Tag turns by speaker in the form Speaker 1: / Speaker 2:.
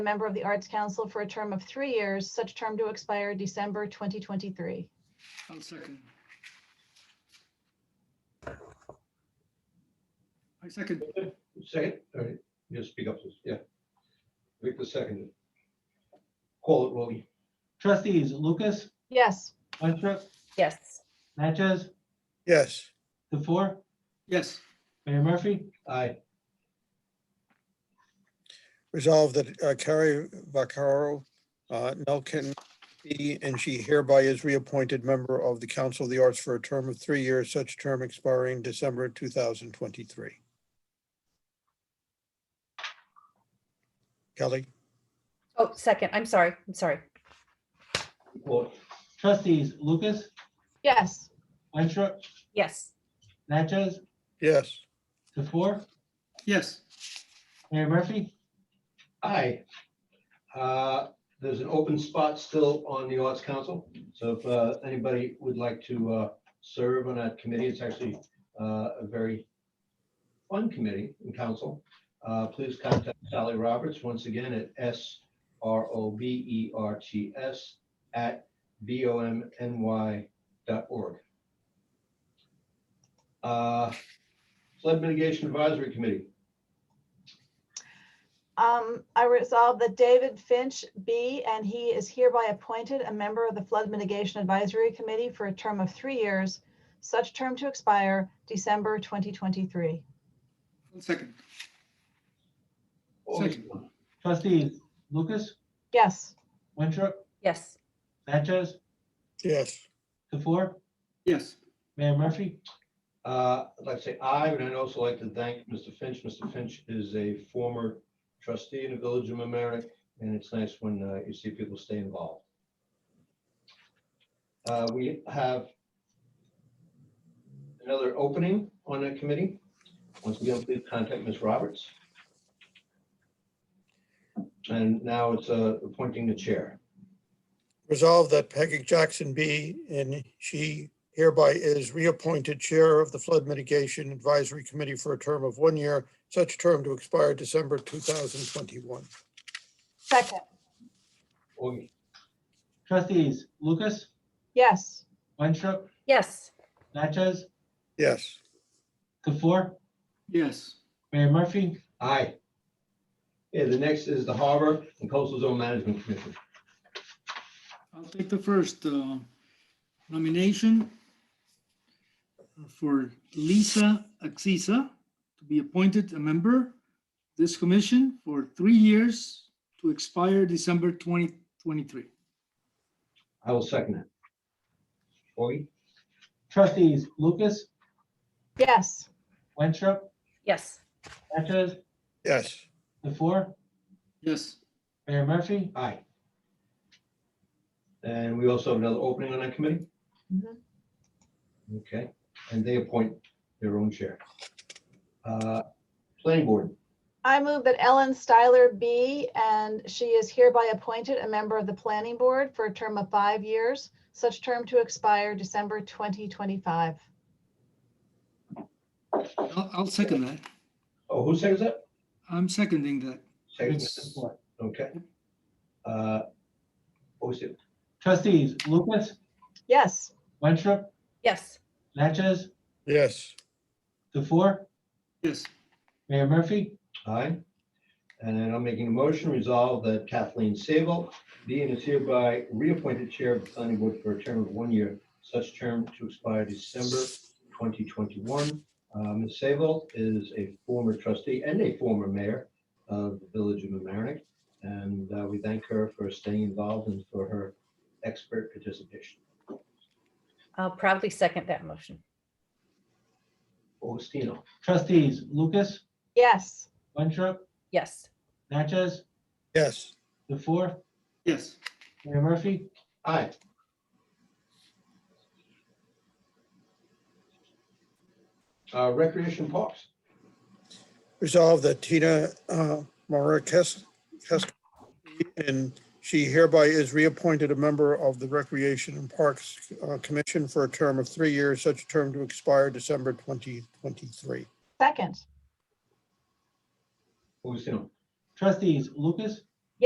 Speaker 1: a member of the Arts Council for a term of three years, such term to expire December 2023.
Speaker 2: I'll second. I second,
Speaker 3: Second, all right, you just speak up, yeah. Victor seconded. Call it, Roly.
Speaker 4: Trustees Lucas,
Speaker 1: Yes,
Speaker 4: Winstrup,
Speaker 5: yes,
Speaker 4: Natchez,
Speaker 6: yes,
Speaker 4: the four,
Speaker 2: yes,
Speaker 4: Mayor Murphy,
Speaker 3: Aye.
Speaker 6: resolve that uh, Carrie Vaccaro uh, Nelson be and she hereby is reappointed member of the Council of the Arts for a term of three years, such term expiring December 2023. Kelly,
Speaker 5: oh, second, I'm sorry, I'm sorry,
Speaker 3: Call it.
Speaker 4: trustees Lucas,
Speaker 1: yes,
Speaker 4: Winstrup,
Speaker 5: yes,
Speaker 4: Natchez,
Speaker 6: yes,
Speaker 4: the four,
Speaker 2: yes,
Speaker 4: Mayor Murphy,
Speaker 3: Aye. Uh, There's an open spot still on the Arts Council, so if uh, anybody would like to uh, serve on that committee, it's actually uh, a very fun committee in council. Uh, Please contact Sally Roberts once again at S R O B E R T S at B O M N Y dot org. Uh, Flood Mitigation Advisory Committee,
Speaker 1: Um, I resolve that David Finch be and he is hereby appointed a member of the Flood Mitigation Advisory Committee for a term of three years, such term to expire December 2023.
Speaker 2: I'll second,
Speaker 3: Oh,
Speaker 2: Second.
Speaker 4: trustees Lucas,
Speaker 1: Yes,
Speaker 4: Winstrup,
Speaker 5: yes,
Speaker 4: Natchez,
Speaker 6: yes,
Speaker 4: the four,
Speaker 2: yes,
Speaker 4: Mayor Murphy,
Speaker 3: Uh, I'd like to say aye, and I'd also like to thank Mr. Finch. Mr. Finch is a former trustee in the Village of Mamaroneck, and it's nice when uh, you see people stay involved. Uh, We have another opening on that committee. Once again, please contact Ms. Roberts. And now it's uh, appointing the chair.
Speaker 6: resolve that Peggy Jackson be and she hereby is reappointed Chair of the Flood Mitigation Advisory Committee for a term of one year, such term to expire December 2021.
Speaker 1: second,
Speaker 3: Augie,
Speaker 4: trustees Lucas,
Speaker 1: yes,
Speaker 4: Winstrup,
Speaker 5: yes,
Speaker 4: Natchez,
Speaker 6: Yes,
Speaker 4: the four,
Speaker 2: yes,
Speaker 4: Mayor Murphy,
Speaker 3: Aye. Yeah, the next is the Harbor and Coastal Zone Management Commission.
Speaker 2: I'll take the first uh, nomination for Lisa Axisa to be appointed a member of this commission for three years to expire December 2023.
Speaker 3: I will second it. Augie?
Speaker 4: trustees Lucas,
Speaker 1: yes,
Speaker 4: Winstrup,
Speaker 5: yes,
Speaker 4: Natchez,
Speaker 6: yes.
Speaker 4: the four,
Speaker 2: Yes,
Speaker 4: Mayor Murphy,
Speaker 3: Aye. And we also have another opening on that committee?
Speaker 1: Mhm.
Speaker 3: Okay, and they appoint their own chair. Uh, Planning board,
Speaker 1: I move that Ellen Styler be, and she is hereby appointed a member of the Planning Board for a term of five years, such term to expire December 2025.
Speaker 2: I'll I'll second that.
Speaker 3: oh, who seconds that?
Speaker 2: I'm seconding that.
Speaker 3: Seconds it. Okay. Uh, What was it?
Speaker 4: trustees Lucas,
Speaker 1: Yes,
Speaker 4: Winstrup,
Speaker 5: yes,
Speaker 4: Natchez,
Speaker 6: Yes,
Speaker 4: the four,
Speaker 2: Yes,
Speaker 4: Mayor Murphy,
Speaker 3: Aye. And I'm making a motion, resolve that Kathleen Sable be and is hereby reappointed chair of the planning board for a term of one year, such term to expire December 2021. Uh, Ms. Sable is a former trustee and a former mayor of the Village of mamaroneck And uh, we thank her for staying involved and for her expert participation.
Speaker 5: I'll proudly second that motion,
Speaker 3: Augustino,
Speaker 4: trustees Lucas,
Speaker 1: yes,
Speaker 4: Winstrup,
Speaker 5: yes,
Speaker 4: Natchez,
Speaker 6: yes,
Speaker 4: the four,
Speaker 2: yes,
Speaker 4: Mayor Murphy,
Speaker 3: aye. Uh, Recreation Parks.
Speaker 6: resolve that Tina uh, Mara Kes- Kes- and she hereby is reappointed a member of the Recreation and Parks uh, Commission for a term of three years, such term to expire December 2023.
Speaker 1: second,
Speaker 3: Augustino.
Speaker 4: trustees Lucas,